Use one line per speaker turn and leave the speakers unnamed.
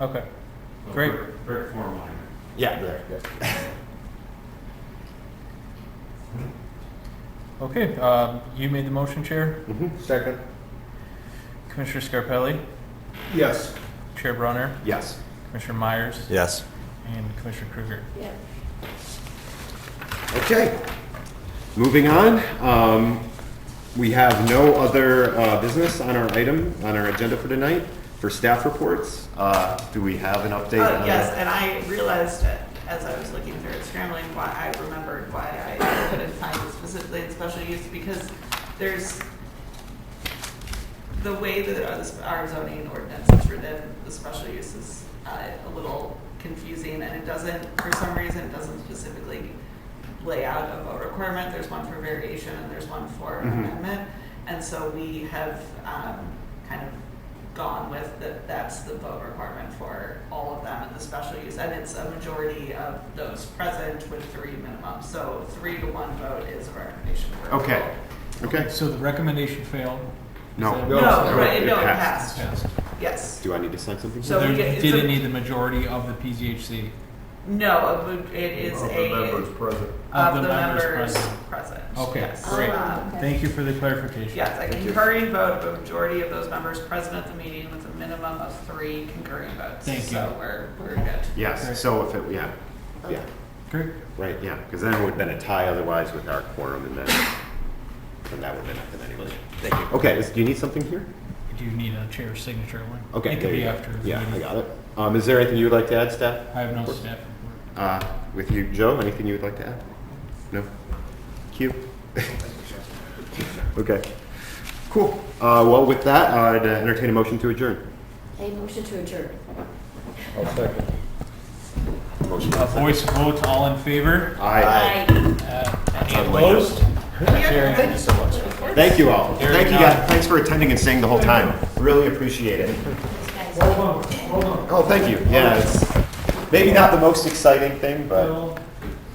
Okay.
So
Great.
brick- Brick form line.
Yeah, there. yeah.
Okay, um, you made the motion, Chair.
Mhm. Second?
Commissioner Scarpelli,
Yes.
Chair Brunner,
Yes.
Commissioner Myers,
Yes.
and Commissioner Kruger.
Yeah.
Okay. Moving on, um, we have no other, uh, business on our item, on our agenda for tonight. For staff reports, uh, do we have an update?
Oh,
Uh,
on-
yes, and I realized it as I was looking through it, scrambling, why I remembered why I couldn't find it specifically in special use, because there's, the way that our- this- our zoning ordinance is written, the special use is uh, a little confusing, and it doesn't, for some reason, it doesn't specifically lay out a vote requirement. There's one for variation, and there's one for
Mhm.
amendment. And so we have um, kind of gone with that, that's the vote requirement for all of them in the special use. And it's a majority of those present with three minimum. So three to one vote is a recommendation. for
Okay,
approval.
okay.
So the recommendation failed.
No.
Is that-
No,
No,
it
right, no, it
passed.
passed,
Passed.
yes.
Do I need to sign something?
So
So
we
there
get- it's
didn't
a-
need the majority of the PZHC.
No, it would- it is
Of
a,
the members present.
of the members
present.
present.
Okay,
yes.
great.
Um,
Thank you for the clarification.
Yes, a concurring vote of a majority of those members present at the meeting with a minimum of three concurring votes.
Thank you.
So we're, we're good.
Right.
Yes, so if it, yeah, yeah,
Great.
right, yeah, because then it would have been a tie otherwise with our quorum and then, and that would have been nothing anyway. Thank you. Okay, is- do you need something here?
Do you need a chair signature one?
Okay.
It
there
could be
you go.
after. the
Yeah, I
meeting.
got it. Um, is there anything you would like to add, staff?
I have no staff report.
Uh, with you, Joe, anything you would like to add? No? Q? Okay. Cool. Uh, well, with that, I'd entertain a motion to adjourn.
A motion to adjourn.
I'll second.
Motion.
Uh, Voice vote, all in favor?
Aye.
Uh, Any
unlike
opposed? Carried.
Thank you so much. Thank you all.
There
Thank
you
you
go.
guys. Thanks for attending and staying the whole time. Really appreciate it.
Aye.
Hold on, hold on.
Oh, thank you. Yeah, it's maybe not the most exciting thing, but
Well,